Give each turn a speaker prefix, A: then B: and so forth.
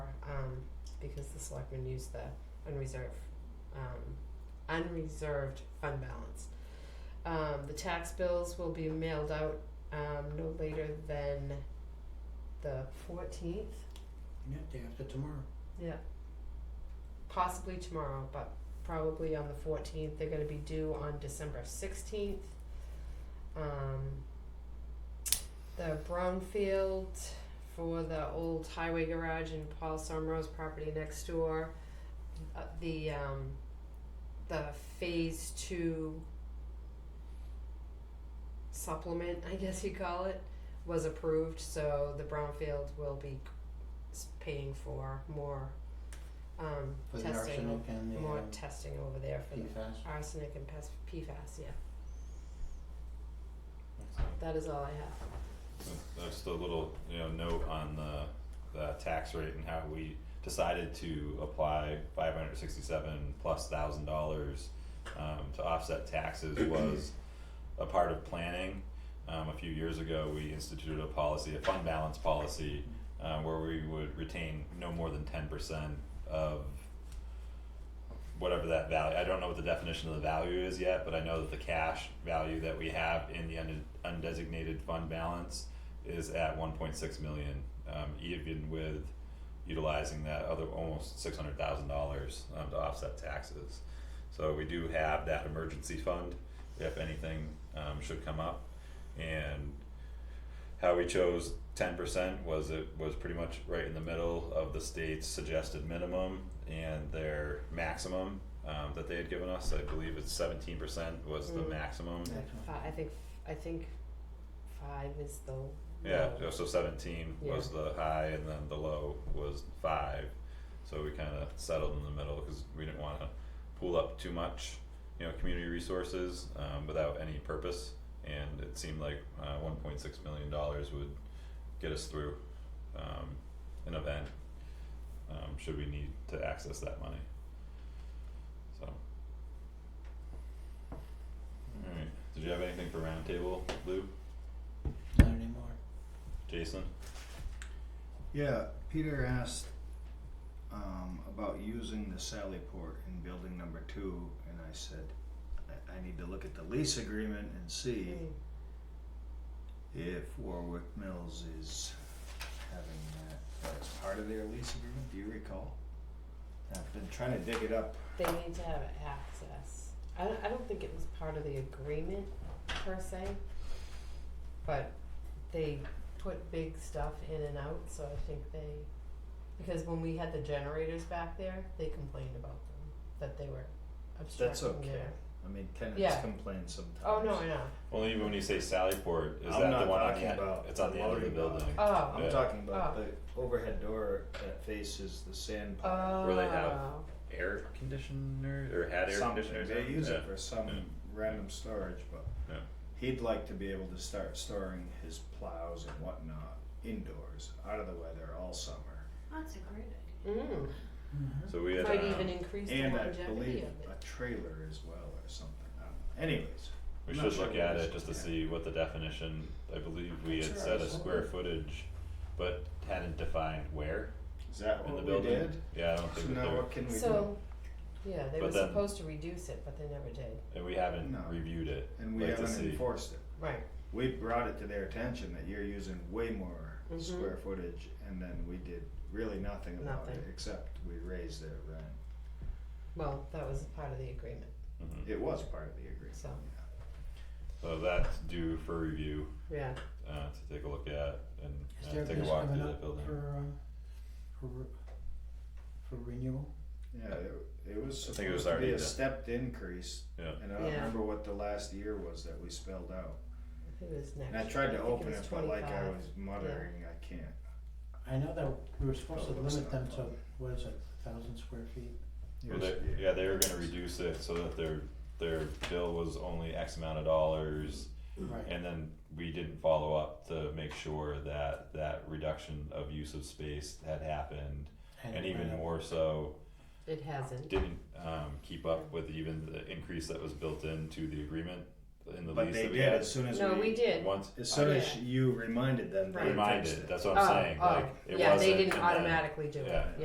A: um, because the selectmen use the unreserved, um, unreserved fund balance. Um, the tax bills will be mailed out, um, no later than the fourteenth,
B: Yeah, day after tomorrow.
A: possibly tomorrow, but probably on the fourteenth, they're gonna be due on December sixteenth. Um, the brownfield for the old highway garage and Paul Somro's property next door. Uh, the, um, the phase two supplement, I guess you call it, was approved, so the brownfield will be s- paying for more, um,
B: For the
A: testing,
B: arsenic and the
A: more
B: um,
A: testing over there for the
B: PFAS.
A: arsenic and pes- PFAS, yeah, that is all I have.
C: That's the little, you know, note on the, the tax rate and how we decided to apply five hundred sixty-seven plus thousand dollars um, to offset taxes was a part of planning. Um, a few years ago, we instituted a policy, a fund balance policy, uh, where we would retain no more than ten percent of whatever that value, I don't know what the definition of the value is yet, but I know that the cash value that we have in the unde- undesignated fund balance is at one point six million, um, even with utilizing that other almost six hundred thousand dollars, um, to offset taxes. So we do have that emergency fund, if anything, um, should come up, and how we chose ten percent was it was pretty much right in the middle of the state's suggested minimum and their maximum um, that they had given us. I believe it's seventeen percent was the
A: Mm.
C: maximum.
B: Yeah.
A: Fi- I think, I think five is the low.
C: Yeah, so seventeen was the high and then the low was five. So we kinda settled in the middle because we didn't wanna pool up too much, you know, community resources um without any purpose. And it seemed like uh one point six million dollars would get us through um an event, um should we need to access that money. So. Alright, did you have anything for roundtable, Lou,
B: Not anymore.
C: Jason?
D: Yeah, Peter asked um, about using the Sallyport in building number two, and I said, I, I need to look at the lease agreement and see
A: Mm.
D: if Warwick Mills is having that as part of their lease agreement. Do you recall? I've been trying to dig it up.
A: They need to have access. I don't, I don't think it was part of the agreement per se, but they put big stuff in and out, so I think they, because when we had the generators back there, they complained about them, that they were
D: That's
A: obstructing
D: okay.
A: their.
D: I mean, tenants
A: Yeah.
D: complain sometimes.
A: Oh, no, I know.
C: Well, even when you say Sallyport, is that
D: I'm
C: the
D: not
C: one on
D: talking
C: the end?
D: about
C: It's on the end of the
D: loading dock.
C: building.
A: Oh,
D: I'm
C: Yeah.
D: talking about the overhead door that faces the sand pile.
A: oh.
C: Where they have Air conditioner or had air
D: something.
C: conditioner?
D: They use it for some
C: Yeah. Mm.
D: random storage, but
C: Yeah.
D: he'd like to be able to start storing his plows and whatnot indoors, out of the weather all summer.
E: That's a great idea.
A: Mm,
B: Mm-hmm.
C: So we had.
A: might
C: um,
A: even increase the
D: And I
A: longevity
D: believe
A: of it.
D: a trailer as well or something. I don't know. Anyways,
C: We
D: I'm
C: should
D: not sure
C: look
D: what
C: at
D: it
C: it
D: is.
C: just to
D: Yeah.
C: see what the definition. I believe we had
B: Sure,
C: set a
B: absolutely.
C: square footage, but hadn't defined where
D: is that
C: in the
D: what we
C: building.
D: did?
C: Yeah, I don't
D: So
C: think that
D: now
C: there,
D: what can we do?
A: So, yeah, they
C: But
A: were
C: then-
A: supposed to reduce it, but they never did.
C: and we haven't
D: No.
C: reviewed it.
D: And we
C: like to
D: haven't
C: see.
D: enforced it.
A: Right.
D: We brought it to their attention that you're using way more
A: Mhm.
D: square footage and then we did really nothing about it
A: Nothing.
D: except we raised their rent.
A: Well, that was part of the agreement.
C: Mhm.
D: It was part of the agreement,
A: So.
D: yeah.
C: So that's due for review
A: Yeah.
C: uh, to take a look at and
B: Is
C: uh,
B: there
C: take a
B: this
C: walk through
B: coming
C: that
B: up
C: building.
B: for, um, for, re- for renewal?
D: Yeah, it, it was
C: I think it was
D: supposed to
C: already
D: be a
C: done.
D: stepped increase,
C: Yeah.
D: and I don't
A: Yeah.
D: remember what the last year was that we spelled out.
A: I think it was next.
D: And I tried to
A: think
D: open
A: was
D: it, but like I
A: 25.
D: was muttering, I can't.
B: I know that we were supposed to
D: Oh, it's
B: limit them
D: not
B: to,
D: fun.
B: what is it, thousand square feet?
C: Well, they, yeah, they were gonna reduce it so that their, their bill was only X amount of dollars.
B: Right,
C: And then we didn't follow up to make sure that that reduction of use of space had happened. And
B: it went
C: even
B: up.
C: more so,
A: It hasn't.
C: didn't um keep up with even the increase that was built into the agreement in the
D: But
C: lease
D: they
C: that we
D: did
C: had.
D: as soon as
A: No, we
D: we,
A: did. Oh,
C: Once
D: as soon as Oh,
A: Yeah.
D: you reminded them, they fixed it.
C: reminded, that's what I'm saying, like, it wasn't.
A: Oh, yeah, they didn't
C: and then-
A: automatically do it.
C: yeah.